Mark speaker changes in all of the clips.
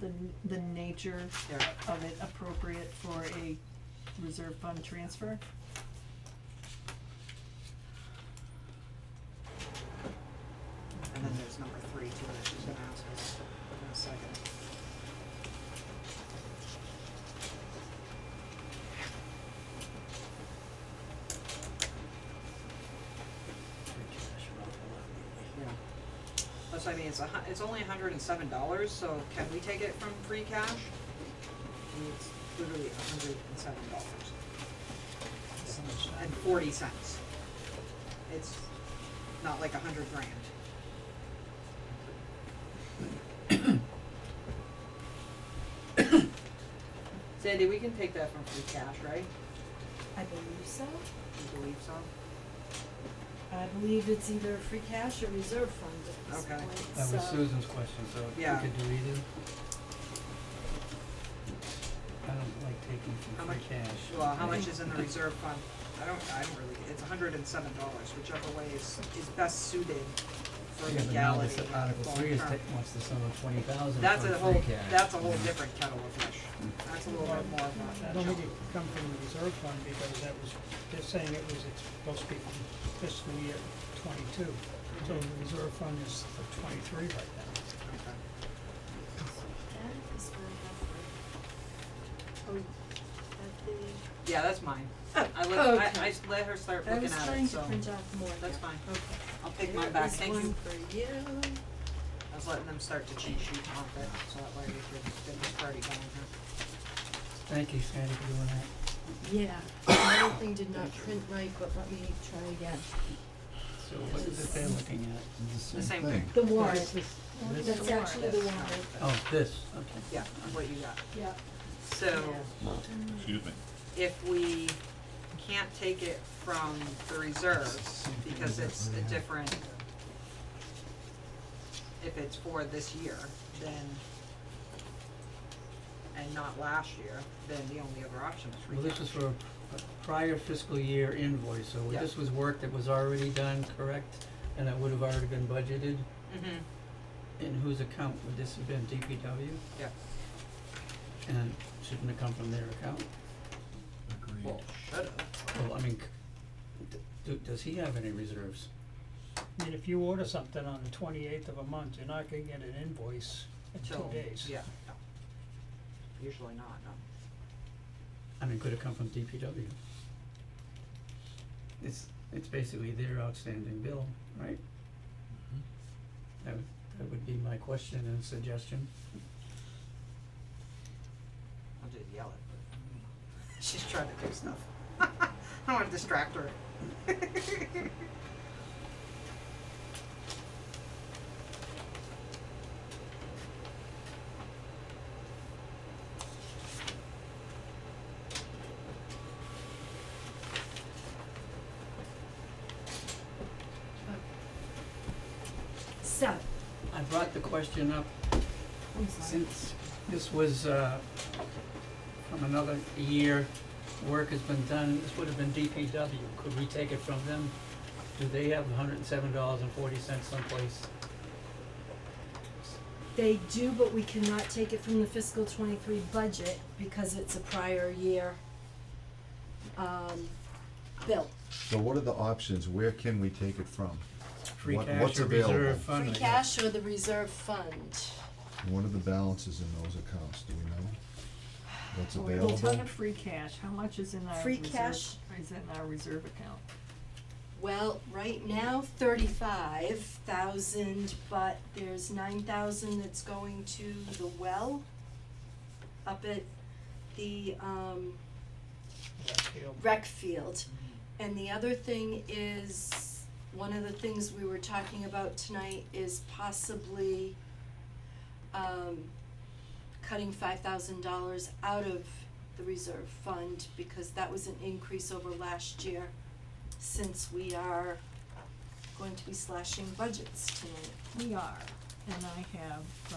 Speaker 1: the, n- the nature
Speaker 2: Yeah.
Speaker 1: of it appropriate for a reserve fund transfer?
Speaker 2: And then there's number three too, that she's gonna ask us in a second. Yeah. That's what I mean, it's a hu- it's only hundred and seven dollars, so can we take it from free cash? I mean, it's literally hundred and seven dollars. And forty cents. It's not like a hundred grand. Sandy, we can take that from free cash, right?
Speaker 3: I believe so.
Speaker 2: You believe so?
Speaker 3: I believe it's either free cash or reserve fund at this
Speaker 2: Okay.
Speaker 3: point, so.
Speaker 4: That was Susan's question, so if we
Speaker 2: Yeah.
Speaker 4: could do either. I don't like taking
Speaker 2: How
Speaker 4: from free
Speaker 2: much-
Speaker 4: cash.
Speaker 2: Well, how much is in the reserve fund? I don't, I don't really, it's hundred and seven dollars, whichever way is, is best suited for
Speaker 4: Yeah, but now this
Speaker 2: legality and long
Speaker 4: Article three is, ta-
Speaker 2: term.
Speaker 4: wants the sum of twenty thousand
Speaker 2: That's a
Speaker 4: for free
Speaker 2: whole,
Speaker 4: cash.
Speaker 2: that's a whole different kettle of fish. That's a little bit more of a.
Speaker 5: Don't think it could come from the reserve fund because that was, they're saying it was, it's supposed to be from fiscal year twenty-two. So the reserve fund is for twenty-three right now.
Speaker 2: Okay.
Speaker 6: That is what I have for, oh, at the.
Speaker 2: Yeah, that's mine.
Speaker 3: Oh,
Speaker 2: I let, I,
Speaker 3: okay.
Speaker 2: I s- let her start
Speaker 3: I
Speaker 2: looking
Speaker 3: was
Speaker 2: at
Speaker 3: trying
Speaker 2: it,
Speaker 3: to
Speaker 2: so
Speaker 3: print out more.
Speaker 2: that's
Speaker 3: yeah.
Speaker 2: fine.
Speaker 3: Okay.
Speaker 2: I'll take mine back, thank
Speaker 3: There is
Speaker 2: you.
Speaker 3: one for you.
Speaker 2: I was letting them start to cheat sheet off it, so that way we could get this party going here.
Speaker 4: Thank you, Sandy, for doing that.
Speaker 3: Yeah, the other thing did not print right, but let me try again.
Speaker 4: So what is it they're looking at?
Speaker 2: The same thing.
Speaker 3: The warrant,
Speaker 4: This-
Speaker 3: that's
Speaker 1: warrant.
Speaker 3: actually the warrant.
Speaker 4: Oh, this, okay.
Speaker 2: Yeah, what you got.
Speaker 1: Yeah.
Speaker 2: So
Speaker 7: Excuse me.
Speaker 2: if we can't take it from the reserves because it's a different, if it's for this year, then, and not last year, then the only other option is free
Speaker 4: Well, this
Speaker 2: cash.
Speaker 4: was for a a prior fiscal year invoice, so
Speaker 2: Yeah.
Speaker 4: this was work that was already done, correct? And that would have already been budgeted?
Speaker 2: Mhm.
Speaker 4: In whose account would this have been, DPW?
Speaker 2: Yeah.
Speaker 4: And shouldn't it come from their account?
Speaker 2: Well, should've.
Speaker 4: Well, I mean, c- d- do, does he have any reserves?
Speaker 5: I mean, if you order something on the twenty-eighth of a month, you're not gonna get an invoice in two
Speaker 2: Till-
Speaker 5: days.
Speaker 2: Yeah, no. Usually not, no.
Speaker 4: I mean, could it come from DPW? It's, it's basically their outstanding bill, right? That would, that would be my question and suggestion.
Speaker 2: I'll just yell it, but she's trying to do stuff. I don't want to distract her.
Speaker 3: So,
Speaker 4: I brought the question up
Speaker 3: I'm sorry.
Speaker 4: Since this was, uh, from another year, work has been done, this would have been DPW, could we take it from them? Do they have hundred and seven dollars and forty cents someplace?
Speaker 3: They do, but we cannot take it from the fiscal twenty-three budget because it's a prior year, um, bill.
Speaker 8: So what are the options? Where can we take it from?
Speaker 4: Free
Speaker 8: What-
Speaker 4: cash
Speaker 8: what's
Speaker 4: or reserve
Speaker 8: available?
Speaker 4: fund?
Speaker 3: Free
Speaker 4: I guess.
Speaker 3: cash or the reserve fund?
Speaker 8: What are the balances in those accounts? Do we know? What's
Speaker 1: Well, We're talking
Speaker 8: available?
Speaker 1: free cash, how much is in our
Speaker 3: Free
Speaker 1: reserve,
Speaker 3: cash?
Speaker 1: is in our reserve account?
Speaker 3: Well, right now, thirty-five thousand, but there's nine thousand that's going to the well up at the, um,
Speaker 5: That field.
Speaker 3: rec field. And the other thing is, one of the things we were talking about tonight is possibly, um, cutting five thousand dollars out of the reserve fund, because that was an increase over last year, since we are going to be slashing budgets tonight.
Speaker 1: We are, and I have,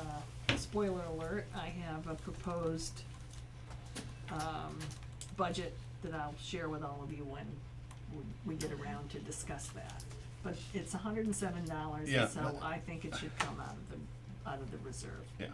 Speaker 1: uh, spoiler alert, I have a proposed, um, budget that I'll share with all of you when we- we get around to discuss that. But it's hundred and seven dollars,
Speaker 7: Yeah,
Speaker 1: and so
Speaker 7: but-
Speaker 1: I think it should come out of the, out of the reserve.
Speaker 7: Yeah.